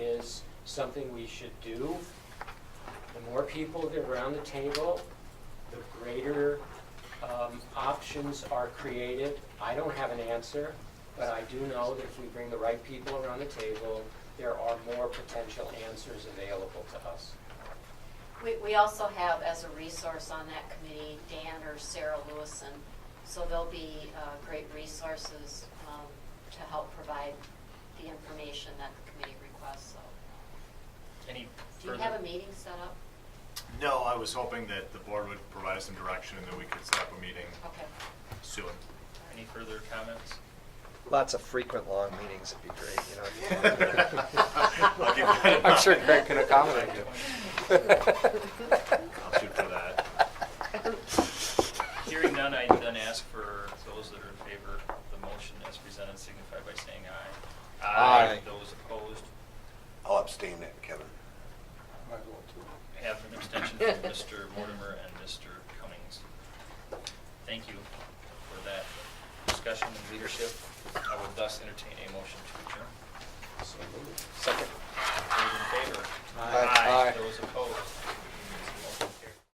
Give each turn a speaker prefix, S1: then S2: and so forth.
S1: something we should do. The more people that are around the table, the greater um, options are created. I don't have an answer, but I do know that if we bring the right people around the table, there are more potential answers available to us.
S2: We, we also have as a resource on that committee, Dan or Sarah Lewison. So they'll be uh, great resources um, to help provide the information that the committee requests, so.
S3: Any
S2: Do you
S3: further?
S2: have a meeting set up?
S4: No, I was hoping that the board would provide us some direction and that we could set up a meeting
S2: Okay.
S4: soon.
S3: Any further comments?
S5: Lots of frequent long meetings would be great, you know.
S4: I'll give you-
S5: I'm sure Greg can accommodate you.
S4: I'll shoot for that.
S3: Hearing none, I then ask for those that are in favor of the motion as presented signify by saying aye.
S5: Aye.
S3: Those opposed,
S6: I'll abstain that, Kevin.
S3: have an abstention from Mr. Mortimer and Mr. Cummings. Thank you for that discussion and leadership. I would thus entertain a motion to adjourn.
S1: So moved.
S3: Second.